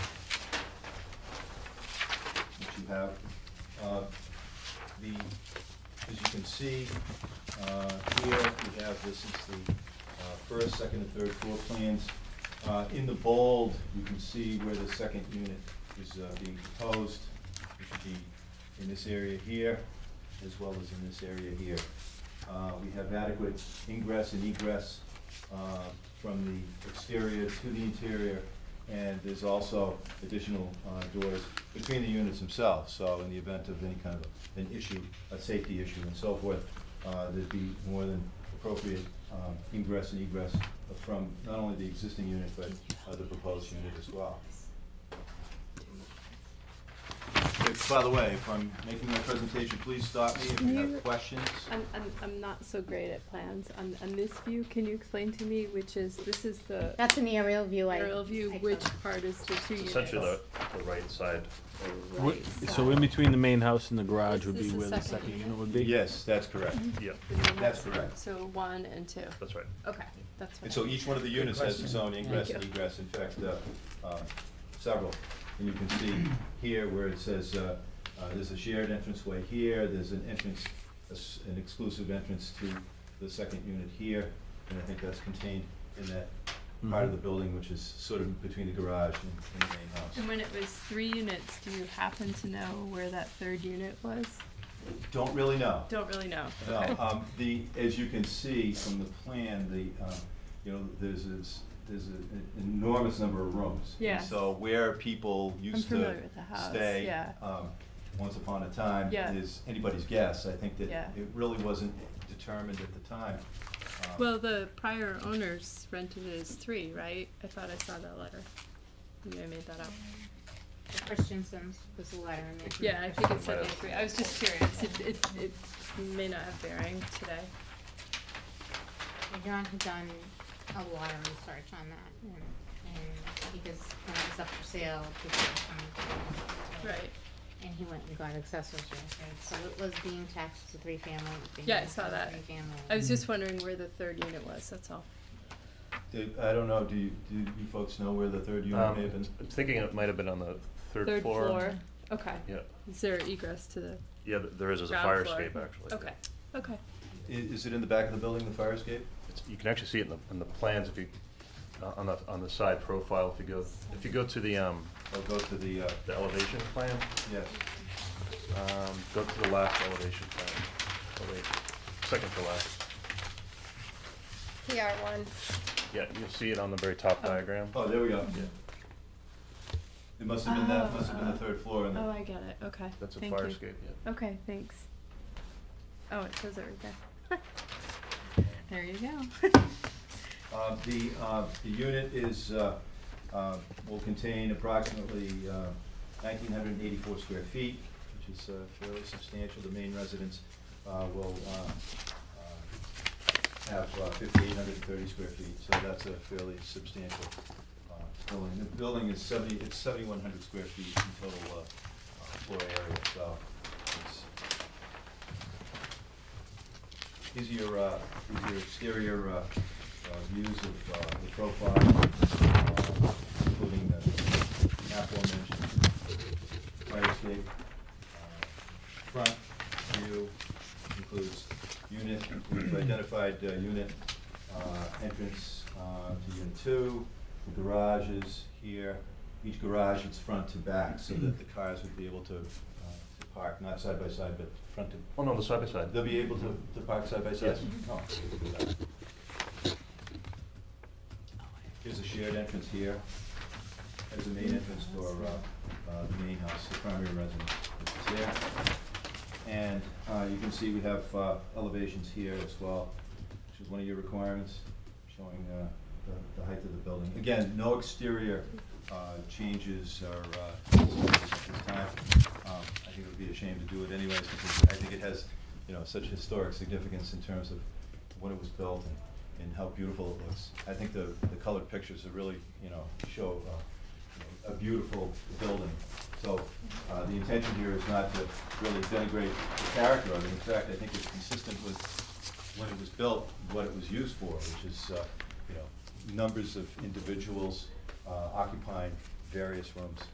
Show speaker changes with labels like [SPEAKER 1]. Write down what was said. [SPEAKER 1] have. Uh, The, as you can see, uh, here we have, this is the uh, first, second, and third floor plans. Uh, In the bold, you can see where the second unit is uh, being proposed. It should be in this area here, as well as in this area here. Uh, We have adequate ingress and egress uh, from the exterior to the interior, and there's also additional uh, doors between the units themselves, so in the event of any kind of an issue, a safety issue and so forth, uh, there'd be more than appropriate um, ingress and egress from not only the existing unit, but uh, the proposed unit as well. If- By the way, if I'm making my presentation, please stop me if you
[SPEAKER 2] You-
[SPEAKER 1] have questions.
[SPEAKER 2] I'm, I'm, I'm not so great at plans. On, on this view, can you explain to me which is, this is the
[SPEAKER 3] That's an aerial view. I-
[SPEAKER 2] aerial view,
[SPEAKER 3] I
[SPEAKER 2] which
[SPEAKER 3] took.
[SPEAKER 2] part is the two
[SPEAKER 4] It's
[SPEAKER 2] units?
[SPEAKER 4] Essentially the, the right side.
[SPEAKER 5] Wh- So in between the main house and the garage would be
[SPEAKER 2] This is the
[SPEAKER 5] where the
[SPEAKER 2] second
[SPEAKER 5] second unit
[SPEAKER 2] unit.
[SPEAKER 5] would be?
[SPEAKER 1] Yes, that's correct.
[SPEAKER 2] Mm-hmm.
[SPEAKER 4] Yeah,
[SPEAKER 1] That's correct.
[SPEAKER 2] So one and two.
[SPEAKER 4] that's right.
[SPEAKER 2] Okay, that's what.
[SPEAKER 1] And
[SPEAKER 2] I-
[SPEAKER 1] so e-, each one of the units has its own ingress
[SPEAKER 2] Thank
[SPEAKER 1] and
[SPEAKER 2] you.
[SPEAKER 1] egress, in fact, uh, uh, several. And you can see here where it says, uh, uh, there's a shared entranceway here, there's an entrance, a s- an exclusive entrance to the second unit here, and I think that's contained in that part of
[SPEAKER 2] Mm-hmm.
[SPEAKER 5] Mhm.
[SPEAKER 1] the building, which is sort of between the garage and and the main house.
[SPEAKER 2] And when it was three units, do you happen to know where that third unit was?
[SPEAKER 1] Don't really know.
[SPEAKER 2] Don't really know.
[SPEAKER 1] No, um, the, as you can see from the plan, the, um, you know, there's this, there's an enormous number of rooms. And
[SPEAKER 2] Yes.
[SPEAKER 1] So where people used to
[SPEAKER 2] familiar with the house,
[SPEAKER 1] stay,
[SPEAKER 2] yeah.
[SPEAKER 1] um, once upon a time
[SPEAKER 2] Yeah.
[SPEAKER 1] is anybody's guess. I think that
[SPEAKER 2] Yeah.
[SPEAKER 1] it really wasn't determined at the time. Um,
[SPEAKER 2] Well, the prior owners rented it as three, right? I thought I saw that letter. Maybe I made that up.
[SPEAKER 3] Christensen's was the letter in there.
[SPEAKER 2] Yeah, I think it said
[SPEAKER 4] Right.
[SPEAKER 2] they agree. I was just curious. It, it, it may not have bearing today.
[SPEAKER 3] And John had done a lot of research on that, and, and because when it was up for sale, people
[SPEAKER 4] Oh.
[SPEAKER 3] were coming.
[SPEAKER 2] Right.
[SPEAKER 3] And he went and got accessories, so it was being taxed as a three-family. it being
[SPEAKER 2] Yeah, I
[SPEAKER 3] taxed
[SPEAKER 2] saw
[SPEAKER 3] as a
[SPEAKER 2] that.
[SPEAKER 3] three-family.
[SPEAKER 2] I was just wondering where the third unit was, that's all.
[SPEAKER 1] do- I don't know, do you, do you folks know where the third unit
[SPEAKER 4] Um,
[SPEAKER 1] may have been?
[SPEAKER 4] I'm thinking it might have been on the third floor.
[SPEAKER 2] Okay.
[SPEAKER 4] Yeah,
[SPEAKER 2] Is there egress to the,
[SPEAKER 4] yeah, th- there is, there's a
[SPEAKER 2] Ground
[SPEAKER 4] fire
[SPEAKER 2] floor.
[SPEAKER 4] escape actually.
[SPEAKER 2] okay, okay.
[SPEAKER 1] I- Is it in the back of the building, the fire escape?
[SPEAKER 4] It's, you can actually see it in the, in the plans if you, uh, on the, on the side profile, if you go, if you go to the, um,
[SPEAKER 1] I'll go to the, uh,
[SPEAKER 4] the elevation plan,
[SPEAKER 1] yes,
[SPEAKER 4] um, go to the last elevation plan. Oh wait, second to last.
[SPEAKER 2] PR one.
[SPEAKER 4] Yeah, you'll see it on the very top
[SPEAKER 2] Oh.
[SPEAKER 4] diagram.
[SPEAKER 1] oh, there we go.
[SPEAKER 4] Yeah.
[SPEAKER 1] It must have been that,
[SPEAKER 2] Oh,
[SPEAKER 1] must have been the
[SPEAKER 2] oh.
[SPEAKER 1] third floor and the
[SPEAKER 2] Oh, I get it, okay.
[SPEAKER 4] That's a
[SPEAKER 2] Thank
[SPEAKER 4] fire
[SPEAKER 2] you.
[SPEAKER 4] escape, yeah.
[SPEAKER 2] Okay, thanks. Oh, it says it right there. There you go.
[SPEAKER 1] Uh, The, uh, the unit is, uh, uh, will contain approximately uh, 1,984 square feet, which is uh, fairly substantial. The main residence uh, will uh, uh, have uh, 5,830 square feet, so that's a fairly substantial uh, building. The building is 70, it's 7,100 square feet in total uh, uh, floor area, so it's, these are your, uh, these are your exterior, uh, uh, views of, uh, the profile, uh, including the aforementioned fire escape. Uh, Front view includes unit, we've identified, uh, unit, uh, entrance, uh, to unit two, the garages here. Each garage is front to back, so that the cars would be able to, uh, to park, not side by side, but front to,
[SPEAKER 4] Oh, no, the side by side.
[SPEAKER 1] They'll be able to, to park side by side?
[SPEAKER 4] Yes.
[SPEAKER 1] Oh. Here's a shared entrance here. There's a main entrance for, uh, uh, the main house, the primary residence, which is there. And, uh, you can see we have, uh, elevations here as well, which is one of your requirements, showing, uh, the, the height of the building. Again, no exterior, uh, changes or, uh, at this time. Um, I think it would be a shame to do it anyways, because I think it has, you know, such historic significance in terms of when it was built and, and how beautiful it looks. I think the, the colored pictures are really, you know, show, uh, you know, a beautiful building. So, uh, the intention here is not to really denigrate the character of it. In fact, I think it's consistent with when it was built, what it was used for, which is, uh, you know, numbers of individuals, uh, occupying various rooms.